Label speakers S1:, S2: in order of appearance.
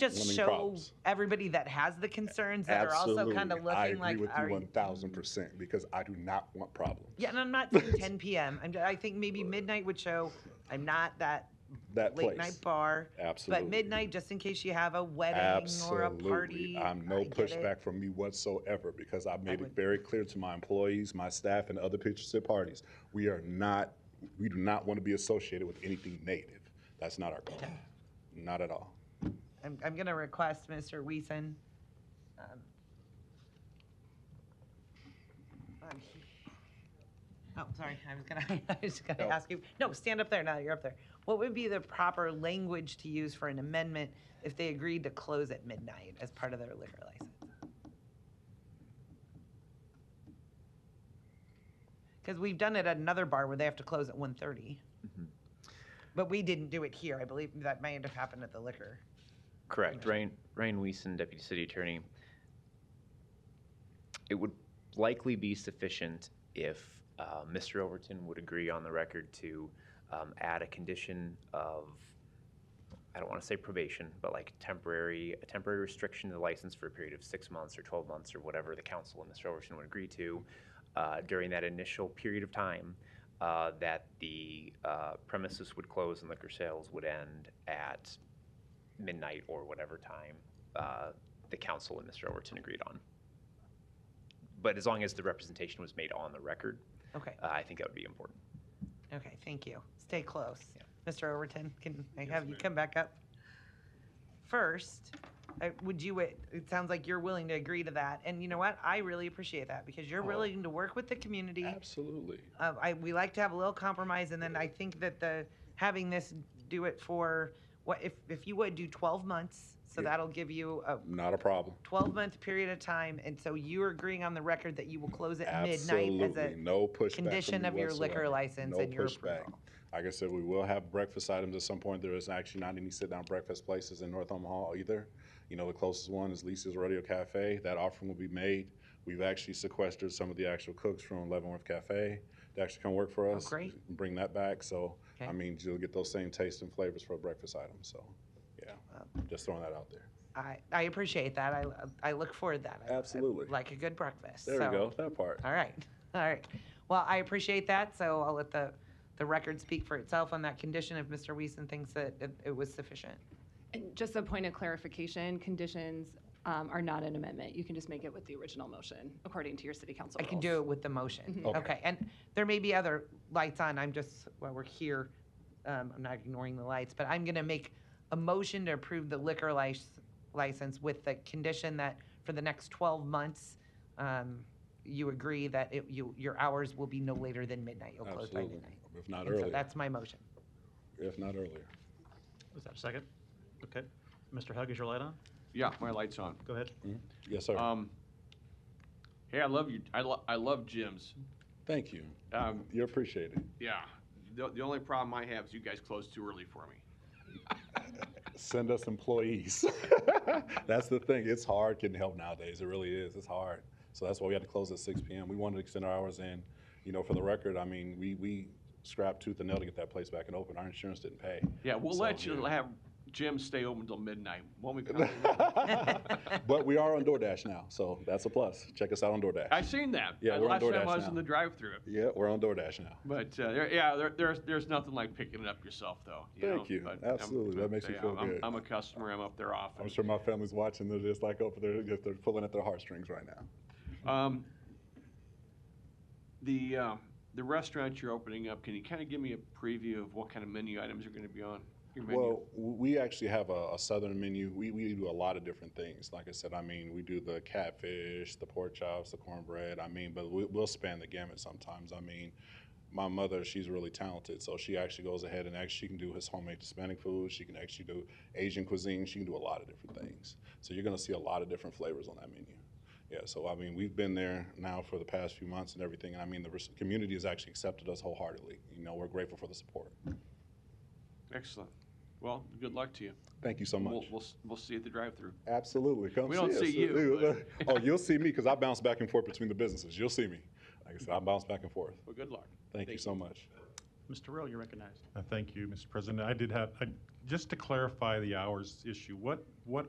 S1: just
S2: Lemming
S1: show
S2: problems.
S1: everybody that has the concerns that
S2: Absolutely.
S1: are also kind of looking
S2: I agree
S1: like,
S2: with
S1: are
S2: you
S1: you-
S2: 1000% because I do not want problems.
S1: yeah, and I'm not saying 10 p.m. I'm, I think maybe midnight would show. I'm not that
S2: That
S1: late
S2: place.
S1: night bar.
S2: Absolutely.
S1: But midnight, just in case you have a wedding or a
S2: Absolutely.
S1: party.
S2: I'm no
S1: I get it.
S2: pushback from you whatsoever because I made it
S1: would-
S2: very clear to my employees, my staff, and other pitchers at parties. We are not, we do not want to be associated with anything native. That's not our goal. Not at all.
S1: I'm, I'm going to request Mr. Weason. um, um, Oh, sorry, I was gonna, I was gonna
S2: No.
S1: ask you, no, stand up there now that you're up there. What would be the proper language to use for an amendment if they agreed to close at midnight as part of their liquor license? Because we've done it at another bar where they have to close at 1:30. But we didn't do it here. I believe that may have happened at the liquor.
S3: Correct. Ryan, Ryan Weason, Deputy City Attorney. It would likely be sufficient if uh, Mr. Overton would agree on the record to um, add a condition of, I don't want to say probation, but like temporary, a temporary restriction to the license for a period of six months or 12 months or whatever the council and Mr. Overton would agree to uh, during that initial period of time uh, that the uh, premises would close and liquor sales would end at midnight or whatever time uh, the council and Mr. Overton agreed on. But as long as the representation was made on the record,
S1: Okay,
S3: uh, I think that would be important.
S1: okay, thank you. Stay close. Mr. Overton, can I have you come back up? First, I- would you, it it sounds like you're willing to agree to that, and you know what? I really appreciate that, because
S2: Oh.
S1: you're willing to work with the community.
S2: Absolutely.
S1: Uh, I, we like to have a little compromise, and then I think that the, having this do it for, what, if, if you would do twelve months, so that'll give you a
S2: Not a problem.
S1: twelve-month period of time, and so you're agreeing on the record that you will close at midnight as
S2: Absolutely.
S1: a
S2: No pushback. from
S1: condition
S2: you
S1: of your liquor
S2: whatsoever.
S1: license
S2: No
S1: and your
S2: pushback.
S1: approval.
S2: Like I said, we will have breakfast items at some point. There is actually not any sit-down breakfast places in North Omaha either. You know, the closest one is Lisa's Rodeo Cafe. That offering will be made. We've actually sequestered some of the actual cooks from Leavenworth Cafe to actually come work for us.
S1: Oh, great.
S2: and Bring that back. So, I
S1: Okay.
S2: mean, you'll get those same tastes and flavors for a breakfast item. So, yeah, just throwing that out there.
S1: I, I appreciate that. I, I look forward to that. I- I
S2: Absolutely.
S1: Like a good breakfast.
S2: There
S1: so-
S2: we go. That part.
S1: All right, all right. Well, I appreciate that, so I'll let the, the record speak for itself on that condition if Mr. Weason thinks that it, it was sufficient.
S4: And just a point of clarification, conditions um, are not an amendment. You can just make it with the original motion, according to your city council
S1: I can do it with the motion.
S2: Okay.
S1: Okay, and there may be other lights on, I'm just, while we're here, um, I'm not ignoring the lights, but I'm gonna make a motion to approve the liquor lic- license with the condition that for the next twelve months, um, you agree that it, you, your hours will be no later than midnight, you'll close by
S2: Absolutely.
S1: midnight.
S2: If not
S1: And so
S2: earlier,
S1: that's my motion.
S2: if not earlier.
S5: Is that a second? Okay. Mr. Hug, is your light on?
S6: Yeah, my light's on.
S5: Go ahead.
S2: Yes, sir.
S6: Um, hey, I love you. I, lo- I love gyms.
S2: Thank you.
S6: Um,
S2: You appreciate it.
S6: yeah. The, the only problem I have is you guys close too early for me.
S2: send us employees. that's the thing. It's hard getting help nowadays. It really is. It's hard. So that's why we had to close at 6 p.m. We wanted to extend our hours in. You know, for the record, I mean, we we scrapped tooth and nail to get that place back and open. Our insurance didn't pay.
S6: Yeah, we'll
S2: So,
S6: let you
S2: yeah.
S6: have gyms stay open till midnight. Won't we? come?
S2: but we are on DoorDash now, so that's a plus. Check us out on DoorDash.
S6: I seen that.
S2: Yeah, we're on
S6: Last time
S2: DoorDash
S6: I was
S2: now.
S6: in the drive-through.
S2: yeah, we're on DoorDash now.
S6: But uh, there, yeah, there, there's there's nothing like picking it up yourself though.
S2: Thank you.
S6: But
S2: Absolutely. That makes you
S6: yeah,
S2: feel
S6: I'm,
S2: good.
S6: I'm a customer. I'm up there often.
S2: I'm sure my family's watching. They're just like over there, just- they're pulling at their heartstrings right now.
S6: Um, the uh, the restaurant you're opening up, can you kind of give me a preview of what kind of menu items are going to be on your menu?
S2: Well, w- we actually have a, a southern menu. We, we do a lot of different things. Like I said, I mean, we do the catfish, the pork chops, the cornbread. I mean, but we, we'll span the gamut sometimes. I mean, my mother, she's really talented, so she actually goes ahead and actually she can do his homemade Hispanic food. She can actually do Asian cuisine. She can do a lot of different things. So you're gonna see a lot of different flavors on that menu. Yeah, so I mean, we've been there now for the past few months and everything, and I mean, the res- community has actually accepted us wholeheartedly. You know, we're grateful for the support.
S6: Excellent. Well, good luck to you.
S2: Thank you so much.
S6: We'll, we'll s- we'll see you at the drive-through.
S2: Absolutely. Come
S6: We don't
S2: us.
S6: see you,
S2: oh, you'll see me because I bounce back and forth between the businesses. You'll see me. Like I said, I bounce back and forth.
S6: Well, good luck.
S2: Thank, you so much.
S5: Mr. Rowe, you're recognized.
S7: Uh, Thank you, Mr. President. I did have, I- just to clarify the hours issue, what, what